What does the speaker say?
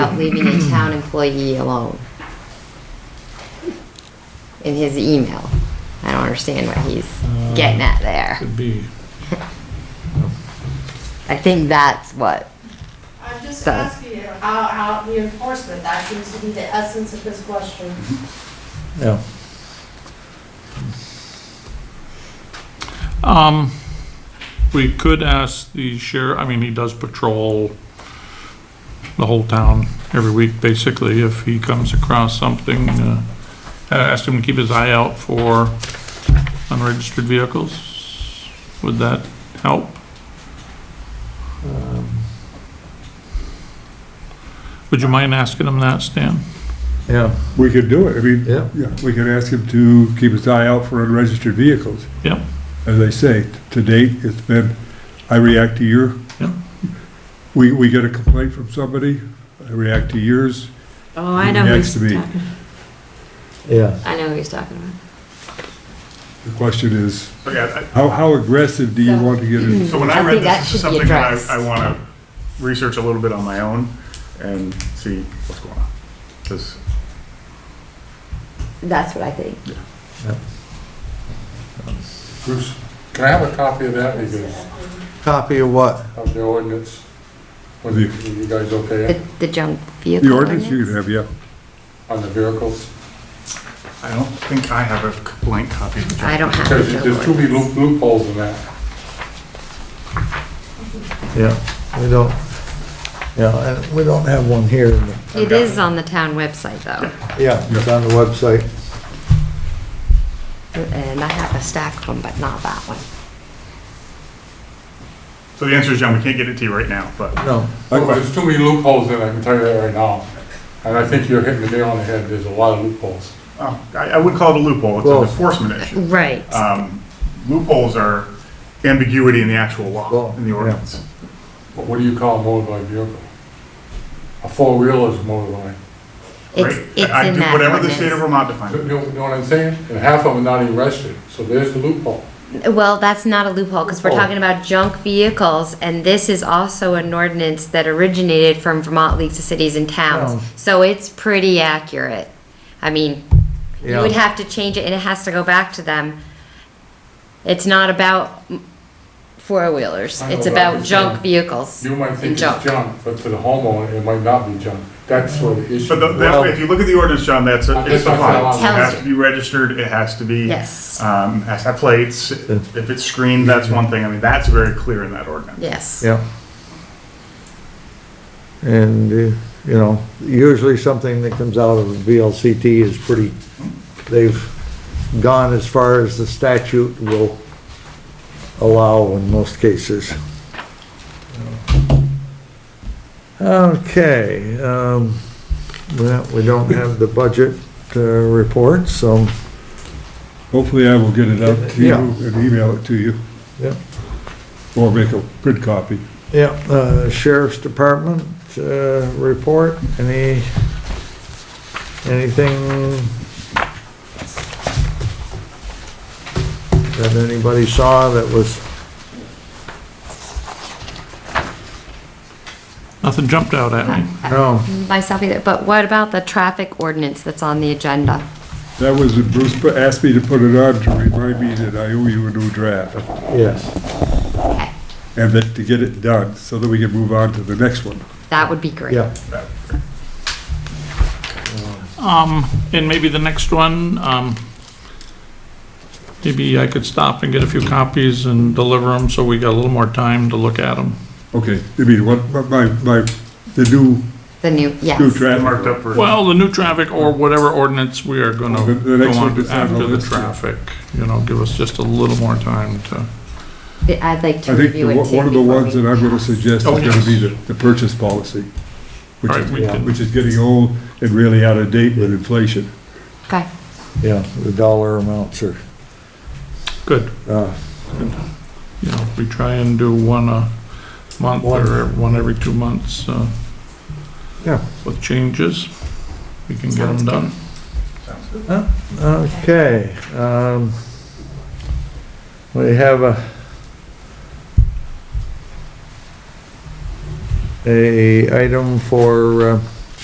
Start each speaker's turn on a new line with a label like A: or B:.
A: about leaving a town employee alone. In his email. I don't understand what he's
B: Uh,
A: getting at there.
C: Could be,
A: I think that's what,
D: I'm just
A: So-
D: asking you, how, how the enforcement, that seems to be the essence of this question.
C: yeah. Um, we could ask the sheriff, I mean, he does patrol the whole town every week, basically, if he comes across something, uh, uh, ask him to keep his eye out for unregistered vehicles. Would that help? Would you mind asking him that, Stan?
E: Yeah,
F: We could do it, I mean,
E: Yeah.
F: yeah, we could ask him to keep his eye out for unregistered vehicles.
C: Yep.
F: As I say, to date, it's been, I react to your,
C: Yep.
F: we, we get a complaint from somebody, I react to yours,
G: Oh, I
F: He
G: know who he's
F: reacts to me.
G: talking.
E: yeah.
G: I know who he's talking about.
F: the question is,
H: Oh,
B: Okay, I-
F: how, how aggressive do you want to get in?
B: so when
A: I
B: I read
A: think that
B: this,
A: should be
B: this is something that
A: addressed.
B: I, I want to research a little bit on my own and see what's going on. 'Cause
A: that's what I think.
H: Bruce, can I have a copy of that, you guys,
E: Copy of what?
H: of the ordinance? Was you, you guys okay
A: The, the junk vehicle.
F: The ordinance you can have, yeah.
H: on the vehicles?
B: I don't think I have a blank copy of the
A: I
B: draft.
A: don't have.
H: Because
A: the junk
H: there's too many
A: ordinance.
H: loop- loopholes in that.
E: Yeah, we don't, yeah, and we don't have one here. in the-
A: It is on the town website though,
E: Yeah, it's on the website.
A: and I have a stack of them, but not that one.
B: Uh, So the answer is, John, we can't get it to you right now, but
E: No,
H: There's too many loopholes in it, I can tell you that right now. And I think you're hitting the nail on the head, there's a lot of loopholes.
B: oh, I, I wouldn't call it a loophole, it's
E: Well-
B: an enforcement issue.
A: Right.
B: Um, Loopholes are ambiguity in the actual law,
E: Well,
B: in the
E: yeah.
B: ordinance.
H: But what do you call a motorbike vehicle? A four-wheeler is a motorbike.
A: It's,
B: right?
A: it's in
B: I- I do
A: that
B: Whatever the state of
A: ordinance.
B: Vermont
H: You
B: defines.
H: know you know what I'm saying? And half of them not even registered, so there's the loophole.
A: Well, that's not a loophole, because we're
H: Loophole.
A: talking about junk vehicles, and this is also an ordinance that originated from Vermont Leagues of Cities and Towns.
E: Oh.
A: So it's pretty accurate. I mean, you would
E: Yeah.
A: have to change it, and it has to go back to them. It's not about four-wheelers,
H: I know
A: it's
H: what
A: about
H: I'm
A: junk
H: saying.
A: vehicles.
H: You might think
A: and
H: it's
A: junk.
H: junk, but to the homeowner, it might not be junk. That's where the issue.
B: But the- that way, if you look at the ordinance, John, that's, a-
H: I'm
B: it's
H: just talking
B: defined.
H: about-
B: It
A: Tells
B: has
A: you.
B: to be registered, it has to be.
A: Yes.
B: Um, has to have plates. If it's screened, that's one thing. I mean, that's very clear in that ordinance.
A: Yes.
E: yeah. And, uh, you know, usually something that comes out of the VLCT is pretty, they've gone as far as the statute will allow in most cases. Okay, um, well, we don't have the budget, uh, report, so,
F: Hopefully I will get it out to you
E: Yeah.
F: and email it to you,
E: yeah.
F: or make a print copy.
E: Yeah, uh, Sheriff's Department, uh, report, any, anything that anybody saw that was,
C: Nothing jumped out at me.
E: no,
A: Myself either, but what about the traffic ordinance that's on the agenda?
F: That was, Bruce put- asked me to put it on to remind me that I owe you a new draft.
E: yes,
A: Okay,
F: and that to get it done so that we can move on to the next one.
A: that would be great.
E: yeah.
C: Um, and maybe the next one, um, maybe I could stop and get a few copies and deliver them, so we got a little more time to look at them.
F: Okay, I mean, what, what my, my, the new,
A: The new,
F: new
A: yes.
F: traffic.
B: Marked up for.
C: Well, the new traffic or whatever ordinance we are gonna
F: The- the
C: go
F: next one
C: on
F: is on the
C: after the
F: list, yeah.
C: traffic, you know, give us just a little more time to,
A: I'd like to
F: I think the
A: review it
F: one
A: too.
F: one of the
A: before
F: ones
A: we
F: that I'm gonna
A: pass.
F: suggest is
C: Oh,
F: gonna
C: yes.
F: be the, the purchase policy, which
C: all right,
F: is,
C: we
E: Yeah.
C: can,
F: which is getting old and really out of date with inflation.
A: Okay.
E: Yeah, the dollar amounts are,
C: good,
E: uh,
C: you know, we try and do one a month or one every two months, uh,
E: yeah,
C: with changes. We can get
A: Sounds
C: them
A: good.
C: done.
E: okay, um, we have a a item for, uh,